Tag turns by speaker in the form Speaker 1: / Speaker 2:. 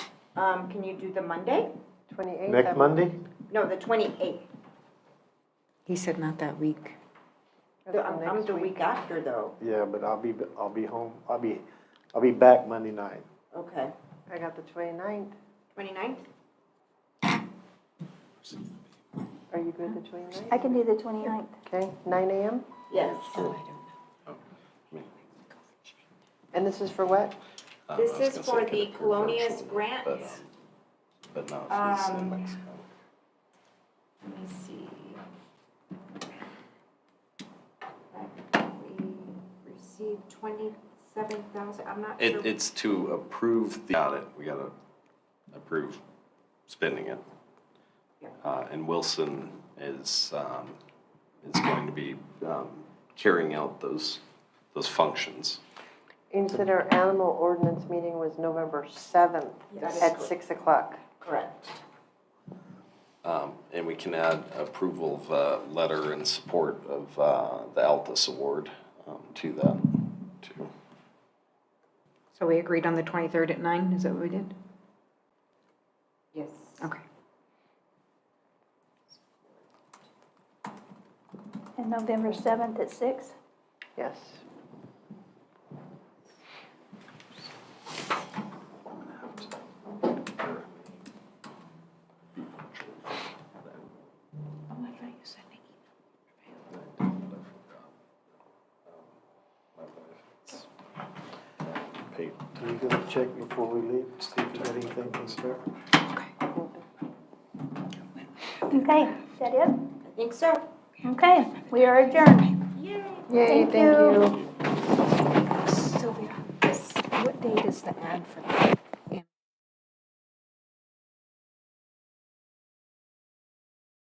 Speaker 1: Um, can you do the Monday?
Speaker 2: Twenty-eighth.
Speaker 3: Next Monday?
Speaker 1: No, the twenty-eighth.
Speaker 4: He said not that week.
Speaker 1: I'm, I'm the week after though,
Speaker 3: Yeah, but I'll be, I'll be home, I'll be, I'll be back Monday night.
Speaker 1: okay.
Speaker 2: I got the twenty-ninth.
Speaker 1: Twenty-ninth?
Speaker 2: Are you good the twenty-ninth?
Speaker 5: I can do the 29th.
Speaker 2: Okay, nine AM?
Speaker 1: Yes.
Speaker 2: And this is for what?
Speaker 6: Um, I
Speaker 1: This
Speaker 6: was
Speaker 1: is
Speaker 6: gonna say
Speaker 1: for
Speaker 6: I could
Speaker 1: the
Speaker 6: approve
Speaker 1: Colonias
Speaker 6: virtually,
Speaker 1: grant.
Speaker 6: but- But no, it's in
Speaker 1: Um,
Speaker 6: Mexico.
Speaker 1: Let me see. We received twenty-seven thousand, I'm not sure.
Speaker 6: It, it's to approve the audit, we gotta approve spending it.
Speaker 1: Yeah.
Speaker 6: Uh, and Wilson is, um, is going to be, um, carrying out those, those functions.
Speaker 2: You said our animal ordinance meeting was November seventh
Speaker 1: Yes.
Speaker 2: at six o'clock.
Speaker 1: Correct.
Speaker 6: Um, and we can add approval of, uh, letter in support of, uh, the Altus Award, um, to that, too.
Speaker 4: So we agreed on the 23rd at 9, is that what we did?
Speaker 1: Yes.
Speaker 4: Okay.
Speaker 5: And November 7th at 6?
Speaker 2: Yes.
Speaker 6: Pay-
Speaker 3: Are you gonna check before we leave, see if you got anything concerned?
Speaker 5: Okay, is that it?
Speaker 1: I think so.
Speaker 5: Okay, we are adjourned.
Speaker 2: Yay,
Speaker 5: Thank
Speaker 2: thank
Speaker 5: you.
Speaker 2: you.